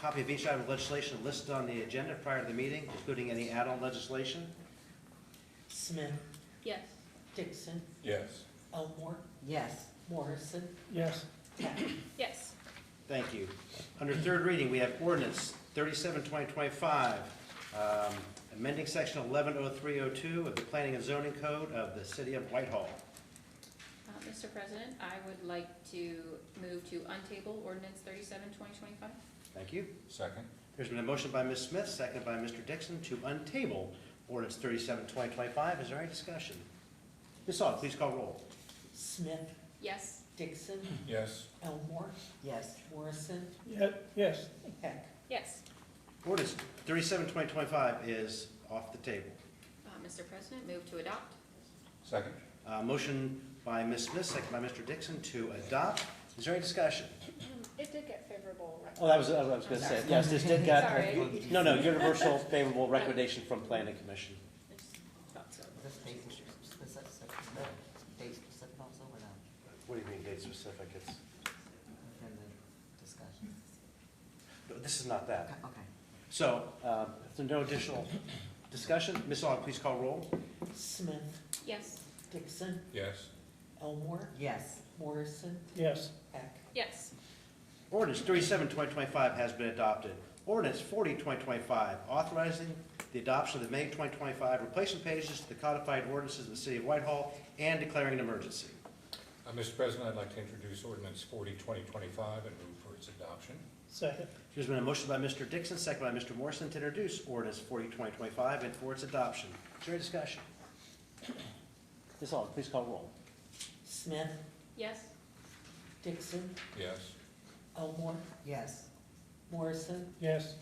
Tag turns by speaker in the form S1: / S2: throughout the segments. S1: copy of each item of legislation listed on the agenda prior to the meeting, including any add-on legislation.
S2: Smith,
S3: Yes.
S2: Dixon,
S4: Yes.
S2: Elmore,
S5: Yes.
S2: Morrison,
S6: yes,
S2: Peck.
S3: Yes.
S1: Thank you. Under third reading, we have ordinance 37, 2025, um, amending section 110302 of the Planning and Zoning Code of the City of Whitehall.
S3: Uh, Mr. President, I would like to move to untable ordinance 37, 2025.
S1: Thank you.
S4: Second?
S1: There's been a motion by Ms. Smith, seconded by Mr. Dixon, to untable ordinance 37, 2025. Is there any discussion? Ms. Aug, please call roll.
S2: Smith,
S3: Yes.
S2: Dixon,
S4: Yes.
S2: Elmore,
S5: Yes.
S2: Morrison,
S6: ye- yes,
S2: Peck.
S3: Yes.
S1: Ordinance 37, 2025 is off the table.
S3: Uh, Mr. President, move to adopt.
S4: Second?
S1: Uh, Motion by Ms. Smith, seconded by Mr. Dixon, to adopt. Is there any discussion?
S3: It did get favorable.
S1: Oh, that was, that was what I was gonna say, yes, this did got,
S3: Sorry.
S1: no, no, universal favorable recommendation from planning commission.
S5: Is this date specific, date specific also or not?
S1: What do you mean date specific? It's,
S5: Within the discussion?
S1: no, this is not that.
S5: Okay.
S1: So, um, if there's no additional discussion, Ms. Aug, please call roll.
S2: Smith,
S3: Yes.
S2: Dixon,
S4: Yes.
S2: Elmore,
S5: Yes.
S2: Morrison,
S6: yes,
S2: Peck.
S3: Yes.
S1: Ordinance 37-2025 has been adopted. Ordinance 40-2025 authorizing the adoption of the May twenty twenty-five replacement pages to the codified ordinances of the city of Whitehall and declaring an emergency.
S4: Uh, Mr. President, I'd like to introduce ordinance forty, twenty twenty-five and move for its adoption.
S6: second,
S1: There's been a motion by Mr. Dixon, second by Mr. Morrison, to introduce ordinance 40-2025 and for its adoption. Is there any discussion? Ms. Aug, please call roll.
S2: Smith,
S3: Yes.
S2: Dixon,
S4: Yes.
S2: Elmore,
S5: Yes.
S2: Morrison,
S6: yes,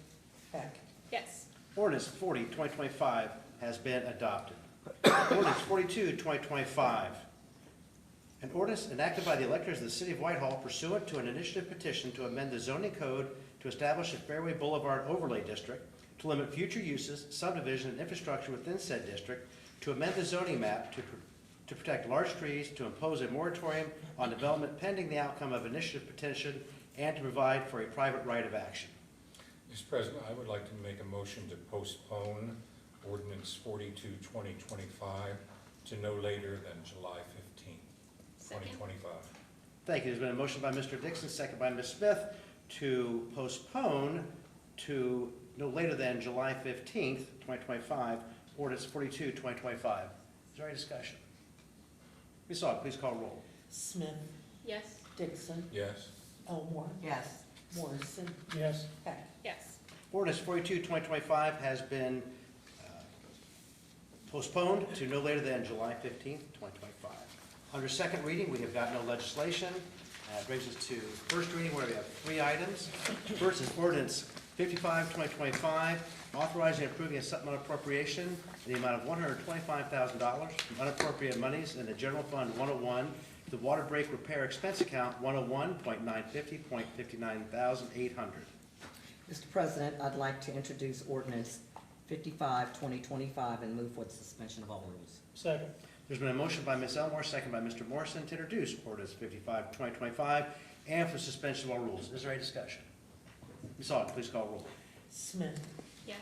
S2: Peck.
S3: Yes.
S1: Ordinance 40-2025 has been adopted. Ordinance 42-2025, An ordinance enacted by the electors of the city of Whitehall pursuant to an initiative petition to amend the zoning code to establish a Fairway Boulevard overlay district to limit future uses, subdivision, and infrastructure within said district, to amend the zoning map to, pr- to protect large trees, to impose a moratorium on development pending the outcome of initiative petition, and to provide for a private right of action.
S4: Mr. President, I would like to make a motion to postpone ordinance forty-two, twenty twenty-five to no later than July fifteenth, twenty
S3: Second.
S4: twenty-five.
S1: Thank you. There's been a motion by Mr. Dixon, second by Ms. Smith, to postpone to no later than July fifteenth, twenty twenty-five, ordinance 42, 2025. Is there any discussion? Ms. Aug, please call roll.
S2: Smith,
S3: Yes.
S2: Dixon,
S4: Yes.
S2: Elmore,
S5: Yes.
S2: Morrison,
S6: yes,
S2: Peck.
S3: Yes.
S1: Ordinance 42, 2025 has been uh, postponed to no later than July fifteenth, twenty twenty-five. Under second reading, we have got no legislation. Uh, It brings us to first reading where we have three items. First is ordinance 55, 2025, authorizing and approving a supplemental appropriation in the amount of one hundred twenty-five thousand dollars from unappropriated monies in the general fund one oh one, the water break repair expense account one oh one point nine fifty point fifty-nine thousand eight hundred.
S5: Mr. President, I'd like to introduce ordinance 55-2025 and move for the suspension of all rules.
S6: second,
S1: There's been a motion by Ms. Elmore, second by Mr. Morrison, to introduce ordinance 55-2025 and for suspension of all rules. Is there any discussion? Ms. Aug, please call roll.
S2: Smith,
S3: Yes.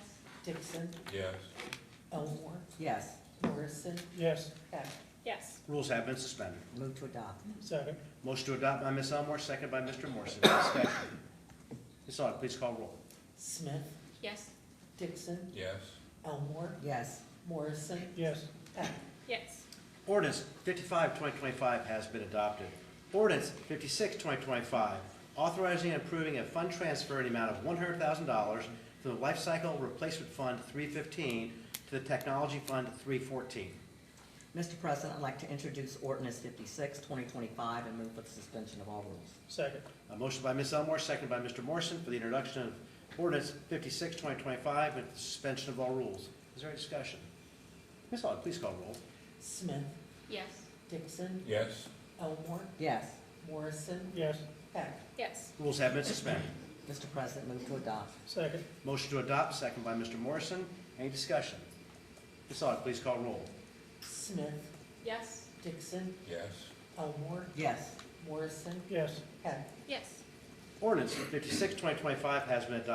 S2: Dixon,
S4: Yes.
S2: Elmore,
S5: Yes.
S2: Morrison,
S6: yes,
S2: Peck.
S3: Yes.
S1: Rules have been suspended.
S5: Move to adopt.
S6: second,
S1: Motion to adopt by Ms. Elmore, second by Mr. Morrison. Discussion. Ms. Aug, please call roll.
S2: Smith,
S3: Yes.
S2: Dixon,
S4: Yes.
S2: Elmore,
S5: Yes.
S2: Morrison,
S6: yes,
S2: Peck.
S3: Yes.
S1: Ordinance 55-2025 has been adopted. Ordinance 56-2025 authorizing and approving a fund transfer in the amount of one hundred thousand dollars from the Life Cycle Replacement Fund three fifteen to the Technology Fund three fourteen.
S5: Mr. President, I'd like to introduce ordinance 56-2025 and move for the suspension of all rules.
S6: second,
S1: A motion by Ms. Elmore, seconded by Mr. Morrison for the introduction of ordinance 56-2025 with suspension of all rules. Is there any discussion? Ms. Aug, please call roll.
S2: Smith,
S3: Yes.
S2: Dixon,
S4: Yes.
S2: Elmore,
S5: Yes.
S2: Morrison,
S6: yes,
S2: Peck.
S3: Yes.
S1: Rules have been suspended.
S5: Mr. President, move to adopt.
S6: second,
S1: Motion to adopt, second by Mr. Morrison. Any discussion? Ms. Aug, please call roll.
S2: Smith,
S3: Yes.
S2: Dixon,
S4: Yes.
S2: Elmore,
S5: Yes.
S2: Morrison,
S6: yes.
S2: Peck.
S3: Yes.
S1: Ordinance 56-2025 has been adopted